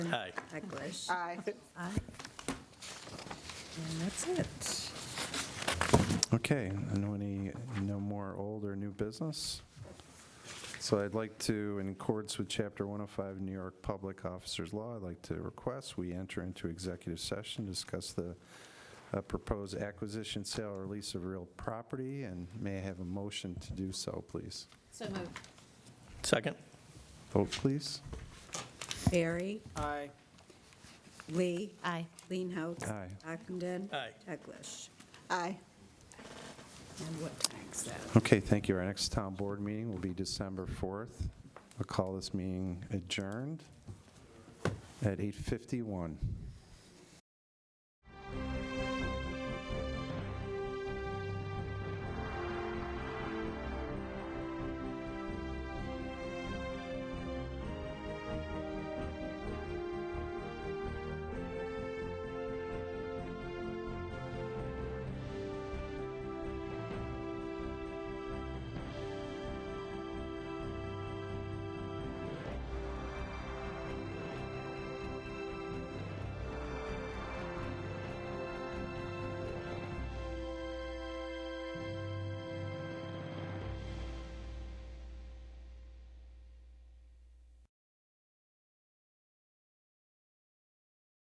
Aye. Ecklish. Uh, Aye. Aye. And that's it. Okay, and any, no more old or new business? So I'd like to, in accordance with Chapter 105 New York Public Officers Law, I'd like to request we enter into executive session, discuss the uh, proposed acquisition, sale, or lease of real property, and may I have a motion to do so, please? So moved. Second? Vote, please. Barry, Aye. Lee, Aye. Leanhouse. Aye. Ockenden. Aye. Ecklish. Aye. And what time is that? Okay, thank you. Our next town board meeting will be December 4th. I'll call this meeting adjourned at 8:51.